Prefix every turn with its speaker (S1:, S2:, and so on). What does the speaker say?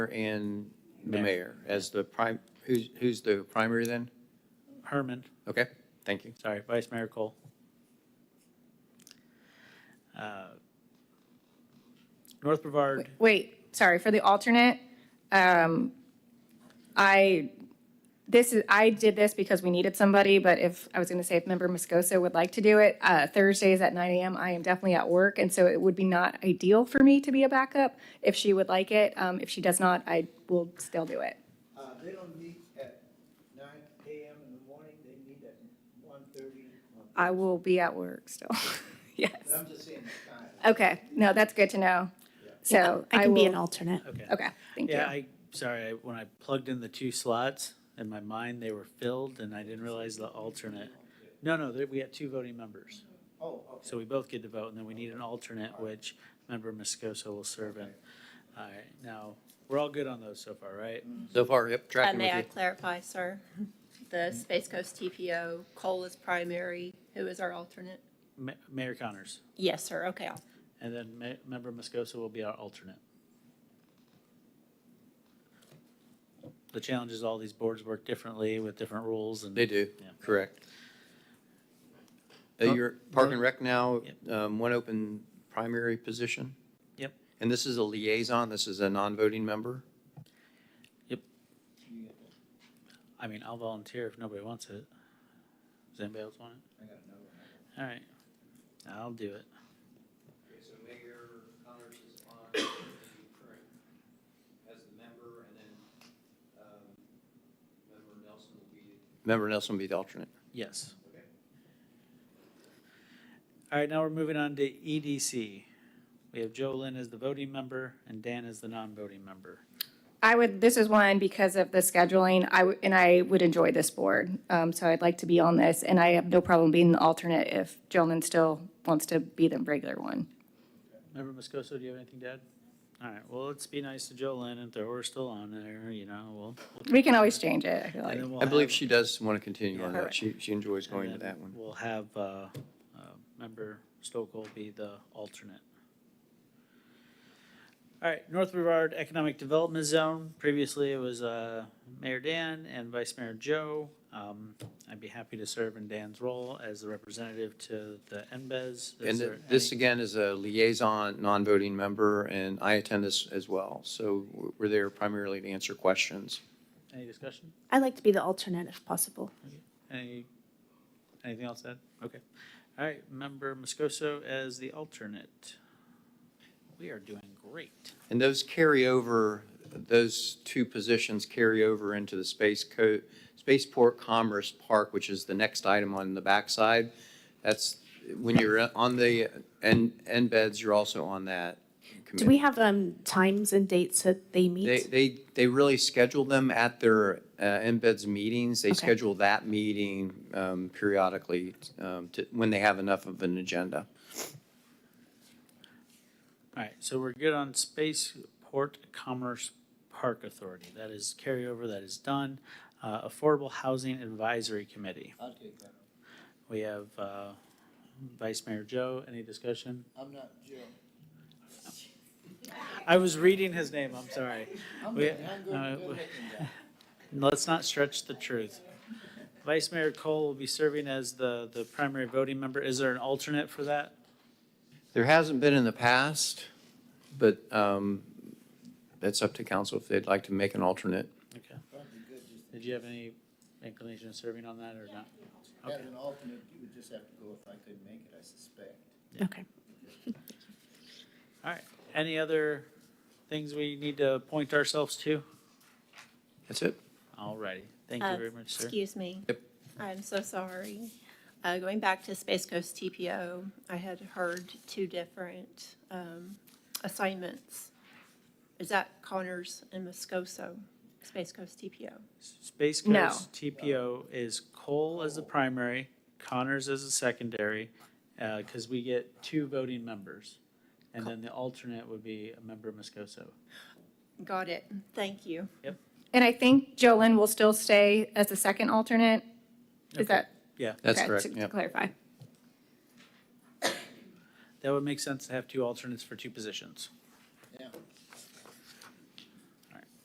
S1: and the mayor as the prime, who's, who's the primary then?
S2: Herman,
S1: Okay, thank you.
S2: sorry, Vice Mayor Cole. Uh, North Brevard,
S3: Wait, sorry, for the alternate, um, I, this is, I did this because we needed somebody, but if, I was gonna say if member Moscoso would like to do it, uh, Thursdays at nine AM, I am definitely at work, and so it would be not ideal for me to be a backup. If she would like it, um, if she does not, I will still do it.
S4: Uh, they don't meet at nine AM in the morning, they meet at one thirty.
S3: I will be at work still, yes.
S4: I'm just saying the time.
S3: Okay, no, that's good to know. So
S5: I
S3: I
S5: can be an
S3: will,
S5: alternate.
S2: okay.
S3: okay, Oh, thank you.
S2: Yeah, I, sorry, I- when I plugged in the two slots, in my mind, they were filled, and I didn't realize the alternate. No, no, there- we had two voting members,
S4: Oh, okay.
S2: so we both get to vote, and then we need an alternate, which Member Moscoso will serve in. All right, now, we're all good on those so far, right?
S1: So far, yep,
S6: Uh,
S1: tracking
S6: May I
S1: with
S6: clarify, sir? The Space Coast TPO, Cole is primary, who is our alternate?
S2: Ma- Mayor Connors,
S6: Yes, sir, okay. I'll-
S2: and then Ma- Member Moscoso will be our alternate. The challenge is all these boards work differently with different rules
S1: you.
S2: and.
S1: They do,
S2: Yeah.
S1: correct. Uh,
S2: Oh,
S1: You're Park and Rec now,
S2: Yep.
S1: um, one open primary position?
S2: Yep.
S1: And this is a liaison, this is a non-voting member?
S4: You get that.
S2: I mean, I'll volunteer if nobody wants it. Does anybody else want it?
S4: I got another one.
S2: All right, I'll do it.
S1: Okay, so Mayor Connors is on the current as the member, and then, um, Member Nelson will be. Member Nelson will be the alternate.
S2: Yes.
S1: Okay.
S2: All right, now we're moving on to EDC. We have Joe Lynn as the voting member and Dan as the non-voting member.
S3: I would, this is one because of the scheduling, I, would- and I would enjoy this board. Um, so I'd like to be on this, and I have no problem being the alternate if Jolyn still wants to be the regular one.
S2: Member Moscoso, do you have anything to add? All right, well, let's be nice to Joe Lynn if we're still on there, you know, we'll.
S3: We can always change it, I feel like.
S2: and then we'll
S1: I believe
S2: have-
S1: she does want to continue on that.
S3: Correct.
S1: She, she enjoys going to
S2: and
S1: that
S2: then
S1: one.
S2: We'll have, uh, uh, member Stokoe be the alternate. All right, North Brevard Economic Development Zone, previously it was, uh, Mayor Dan and Vice Mayor Joe. Um, I'd be happy to serve in Dan's role as the representative to the E NBES.
S1: And th- this again is a liaison, non-voting member, and I attend this as well. So we're- we're there primarily to answer questions.
S2: Any discussion?
S5: I like to be the alternate if possible.
S2: Any, anything else to add? Okay. All right, member Moscoso as the alternate. We are doing great.
S1: And those carry over, those two positions carry over into the Space Co, Spaceport Commerce Park, which is the next item on the backside. That's, when you're uh, on the, and, and beds, you're also on that committee.
S5: Do we have um times and dates that they
S1: They,
S5: meet?
S1: they, they really schedule them at their uh, embeds meetings. They
S5: Okay.
S1: schedule that meeting um, periodically um, to, when they have enough of an agenda.
S2: All right, so we're good on Spaceport Commerce Park Authority. That is carryover, that is done. Uh, Affordable Housing Advisory Committee.
S4: I'll take that.
S2: We have uh, Vice Mayor Joe. Any discussion?
S4: I'm not Joe.
S2: I was reading his name, I'm sorry.
S4: I'm
S2: We-
S4: the young,
S2: uh, we-
S4: good, good looking guy.
S2: Let's not stretch the truth. Vice Mayor Cole will be serving as the, the primary voting member. Is there an alternate for that?
S1: There hasn't been in the past, but um, that's up to council if they'd like to make an alternate.
S2: Okay.
S4: Probably good, just
S2: Did you have any inclination of serving on that or not?
S4: as an alternate, you would just have to go if I couldn't make it, I suspect.
S5: Okay.
S2: All right. Any other things we need to point ourselves to?
S1: That's it.
S2: All righty. Thank
S6: Uh,
S2: you very much, sir.
S6: Excuse me.
S1: Yep.
S6: I'm so sorry. Uh, Going back to Space Coast TPO, I had heard two different um, assignments. Is that Connors and Moscoso, Space Coast TPO?
S2: Space
S3: No.
S2: Coast TPO is Cole as the primary, Connors as the secondary, because we get two voting members. And then the alternate would be a member Moscoso.
S6: Got it. Thank you.
S3: And I think Jolyn will still stay as the second alternate.
S2: Okay.
S3: Is that?
S2: Yeah,
S1: That's
S3: okay,
S1: correct.
S3: to- To
S1: Yep.
S3: clarify.
S2: that would make sense to have two alternates for two positions.